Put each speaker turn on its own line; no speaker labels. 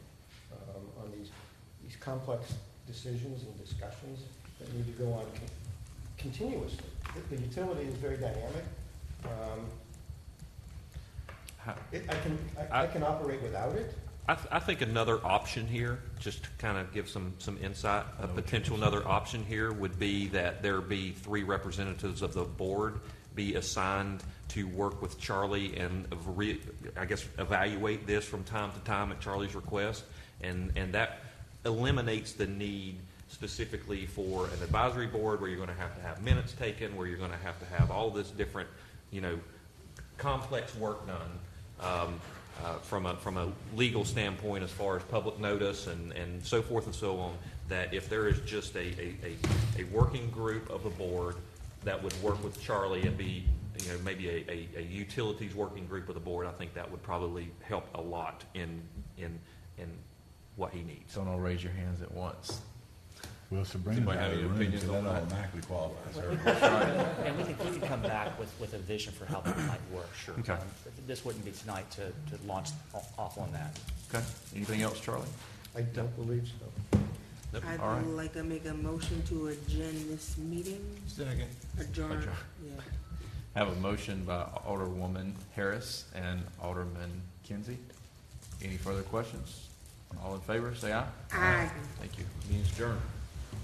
um, these complex decisions and discussions that need to go on con- continuously. The- The utility is very dynamic. Um,
Ha-
it- I can, I I
I-
can operate without it.
I, th- I think another option here, just to kind of give some, some insight, a potential another option here would be that there be three representatives of the board be assigned to work with Charlie and of re, I guess evaluate this from time to time at Charlie's request. And, and that eliminates the need specifically for an advisory board where you're going to have to have minutes taken, where you're going to have to have all this different, you know, complex work done um, uh, from a, from a legal standpoint as far as public notice and, and so forth and so on, that if there is just a, a, a, a working group of the board that would work with Charlie and be, you know, maybe a, a, a utilities working group of the board, I think that would probably help a lot in, in, in what he needs.
Don't all raise your hands at once.
Well, Sabrina's
Anybody
out
have
of the
any
room,
opinions
so that
on that?
automatically qualifies her.
And we can, we can come back with, with a vision for how that might work.
Sure.
Okay.
Um, This wouldn't be tonight to, to launch o- off on that.
Okay. Anything else, Charlie?
I don't believe so.
Nope.
I'd
All right.
like to make a motion to adjourn this meeting.
Second.
Adjourn,
Adjourn.
yeah.
Have a motion by Alderwoman Harris and Alderman Kinsey. Any further questions? All in favor, say aye.
Aye.
Thank you. Meeting's adjourned.